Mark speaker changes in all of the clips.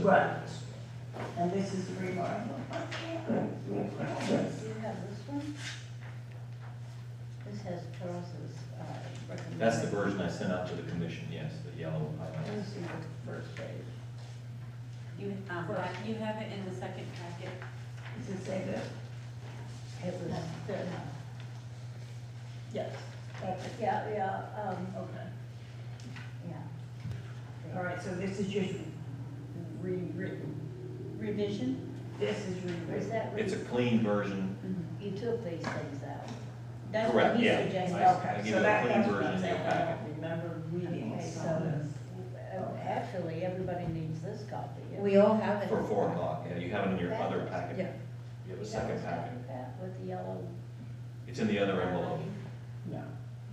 Speaker 1: Right. And this is the remark.
Speaker 2: Do you have this one? This has Charles's uh, recommendation.
Speaker 3: That's the version I sent out to the commission, yes, the yellow highlights.
Speaker 2: This is the first page.
Speaker 4: You, um,
Speaker 2: Right.
Speaker 4: you have it in the second packet.
Speaker 1: Does it say that?
Speaker 2: It was,
Speaker 1: Yes.
Speaker 2: that's, yeah, yeah, um,
Speaker 1: Okay.
Speaker 2: yeah.
Speaker 1: All right, so this is just rewritten.
Speaker 2: Revision,
Speaker 1: This is
Speaker 2: or is
Speaker 1: rewritten.
Speaker 2: that? re-
Speaker 3: It's a clean version,
Speaker 2: Mhm. You took these things out. That's what
Speaker 3: correct,
Speaker 2: he
Speaker 3: yeah.
Speaker 2: suggested.
Speaker 3: I- I
Speaker 1: Okay,
Speaker 3: give you
Speaker 1: so
Speaker 3: a
Speaker 1: that-
Speaker 3: clean
Speaker 1: that's what
Speaker 3: version
Speaker 1: I'm
Speaker 3: in your
Speaker 1: saying. I
Speaker 3: packet.
Speaker 1: don't remember reading
Speaker 2: Okay,
Speaker 1: some of
Speaker 2: so,
Speaker 1: this.
Speaker 2: uh, actually, everybody needs this copy.
Speaker 5: We all have it.
Speaker 3: for four o'clock, yeah, you have it in your other
Speaker 5: Yeah.
Speaker 3: packet, you have a
Speaker 2: That
Speaker 3: second
Speaker 2: was
Speaker 3: packet.
Speaker 2: copy that With the yellow.
Speaker 3: It's in the other envelope.
Speaker 1: No,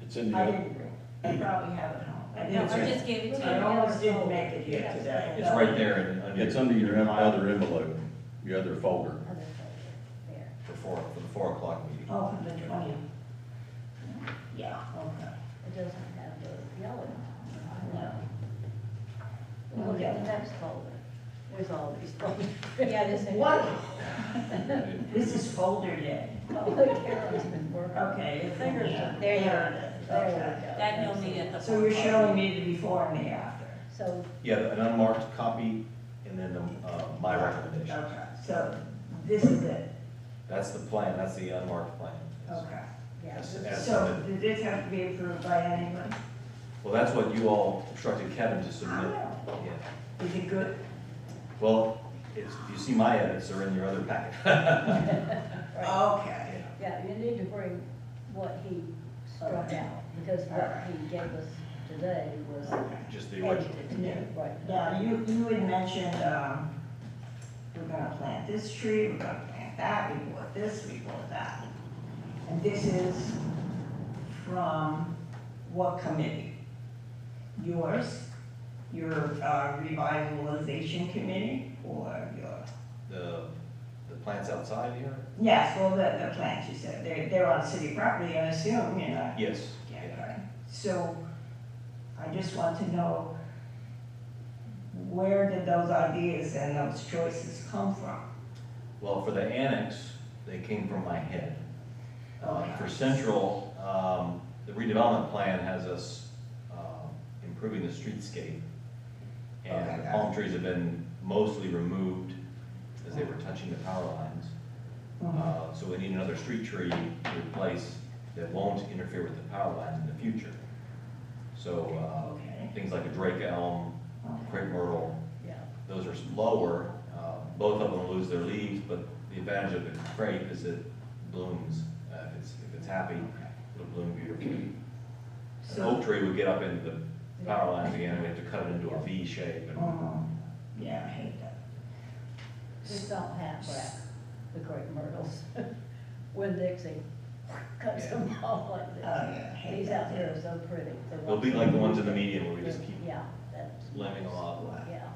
Speaker 6: It's in the,
Speaker 1: I
Speaker 6: other-
Speaker 1: didn't read. I probably have it home. I
Speaker 4: No,
Speaker 1: didn't
Speaker 3: it's
Speaker 4: I
Speaker 3: right.
Speaker 1: read.
Speaker 4: just gave it to
Speaker 1: I
Speaker 4: you.
Speaker 1: almost didn't make it here
Speaker 2: Yes.
Speaker 1: today.
Speaker 3: It's right there in, under.
Speaker 6: it's under your other envelope, your other folder.
Speaker 2: Other folder, there.
Speaker 3: For four, for the four o'clock meeting.
Speaker 1: Oh, from the twentieth. Yeah, okay.
Speaker 2: It doesn't have the yellow.
Speaker 1: No.
Speaker 2: Look at the next folder. There's all these folders. Yeah, this is.
Speaker 1: What?
Speaker 3: It-
Speaker 1: This is folder day.
Speaker 2: Oh, Carolyn's been working.
Speaker 1: Okay, the fingers are.
Speaker 2: There you
Speaker 1: There
Speaker 2: are.
Speaker 1: it is,
Speaker 2: There we
Speaker 1: okay.
Speaker 2: go.
Speaker 4: That you'll need at the.
Speaker 1: So you're
Speaker 4: fourth
Speaker 1: showing me
Speaker 4: meeting.
Speaker 1: the before and the after.
Speaker 2: So,
Speaker 3: Yeah, an unmarked copy and then the, uh, my recommendation.
Speaker 1: Okay, so this is it,
Speaker 3: That's the plan, that's the unmarked plan. yes.
Speaker 1: okay.
Speaker 2: yeah,
Speaker 3: That's-
Speaker 2: this-
Speaker 3: that's-
Speaker 1: So did this have to be approved by anyone?
Speaker 3: Well, that's what you all instructed Kevin to
Speaker 1: I
Speaker 3: submit.
Speaker 1: don't know.
Speaker 3: Yeah.
Speaker 1: Is it good?
Speaker 3: Well, it's, you see my edits are in your other packet.
Speaker 2: right.
Speaker 1: Okay.
Speaker 2: yeah, you need to bring what he struck
Speaker 1: Okay.
Speaker 2: out, because what he gave us today was
Speaker 3: Just the original.
Speaker 2: edited.
Speaker 1: Yeah.
Speaker 2: Right.
Speaker 1: Now, you, you had mentioned, um, we're gonna plant this tree, we're gonna plant that, we bought this, we bought that. And this is from what committee? Yours, your uh, revitalization committee, or your?
Speaker 3: The, the plants outside here?
Speaker 1: Yes, well, the, the plants, you said, they're, they're on city property, I assume, you know?
Speaker 3: Yes.
Speaker 1: Yeah,
Speaker 3: yeah.
Speaker 1: okay. So I just want to know, where did those ideas and those choices come from?
Speaker 3: Well, for the annex, they came from my head. Uh,
Speaker 1: Okay.
Speaker 3: For central, um, the redevelopment plan has us um, improving the streetscape.
Speaker 1: Oh, Okay,
Speaker 3: And the
Speaker 1: got
Speaker 3: palm trees have been mostly removed as they were touching the power lines.
Speaker 1: Mm-hmm. Uh-huh.
Speaker 3: Uh, So we need another street tree to replace that won't interfere with the power lines in the future. So uh,
Speaker 1: Okay.
Speaker 3: things like a drake elm, crepe myrtle,
Speaker 2: Yeah.
Speaker 3: those are lower, uh, both of them lose their leaves, but the advantage of the crepe is it blooms. Uh, If it's, if it's happy, it'll bloom beautifully. An
Speaker 1: So,
Speaker 3: oak tree would get up into the power lines again, and we have to cut it into a V shape, and
Speaker 1: um, yeah, I hate that.
Speaker 2: Just don't half wrap the great myrtles. When Dixie cuts them off like
Speaker 1: Oh,
Speaker 2: this.
Speaker 1: yeah, I hate
Speaker 2: These
Speaker 1: that.
Speaker 2: out here are so pretty. the
Speaker 3: Uh, they'll be like the ones in the median where we just keep
Speaker 2: Yeah, that's.
Speaker 3: lemming them off.
Speaker 2: Yeah.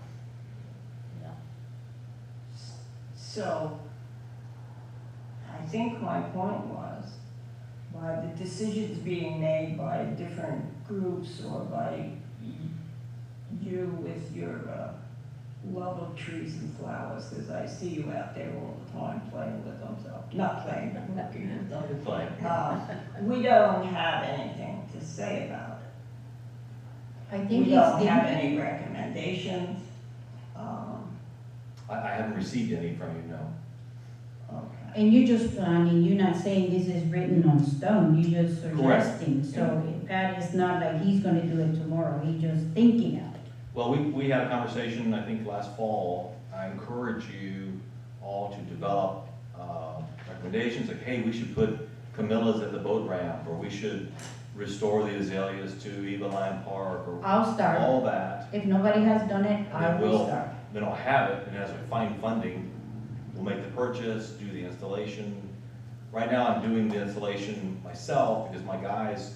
Speaker 2: Yeah.
Speaker 1: So, I think my point was, by the decisions being made by different groups or by you with your uh, love of trees and flowers, because I see you out there all the time playing with them, so, not playing, but looking at them.
Speaker 3: It's like,
Speaker 1: Uh, We don't have anything to say about it.
Speaker 5: I think it's
Speaker 1: We don't have
Speaker 5: the,
Speaker 1: any recommendations. Um,
Speaker 3: I, I haven't received any from you, no.
Speaker 1: Okay.
Speaker 5: and you just, I mean, you're not saying this is written on stone, you just
Speaker 3: Correct.
Speaker 5: suggesting. So God is not like he's gonna do it tomorrow, he's just thinking of it.
Speaker 3: Well, we, we had a conversation, I think, last fall. I encourage you all to develop uh, recommendations, like, hey, we should put Camilla's at the boat ramp, or we should restore the azaleas to Eva Lime Park, or
Speaker 5: I'll start.
Speaker 3: all that.
Speaker 5: If nobody has done it, I
Speaker 3: And
Speaker 5: will
Speaker 3: we'll-
Speaker 5: start.
Speaker 3: Then I'll have it, and as we find funding, we'll make the purchase, do the installation. Right now, I'm doing the installation myself, because my guys,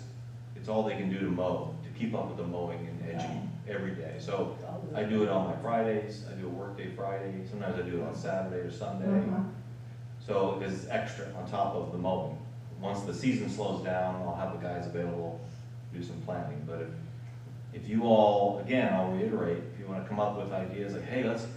Speaker 3: it's all they can do to mow, to keep up with the mowing and edging every day. So I do it on my Fridays, I do a workday Friday, sometimes I do it on Saturday or Sunday.
Speaker 5: Uh-huh.
Speaker 1: Mhm.
Speaker 3: So this is extra on top of the mowing. Once the season slows down, I'll have the guys available, to do some planting. But if, if you all, again, I'll reiterate, if you wanna come up with ideas like, hey, let's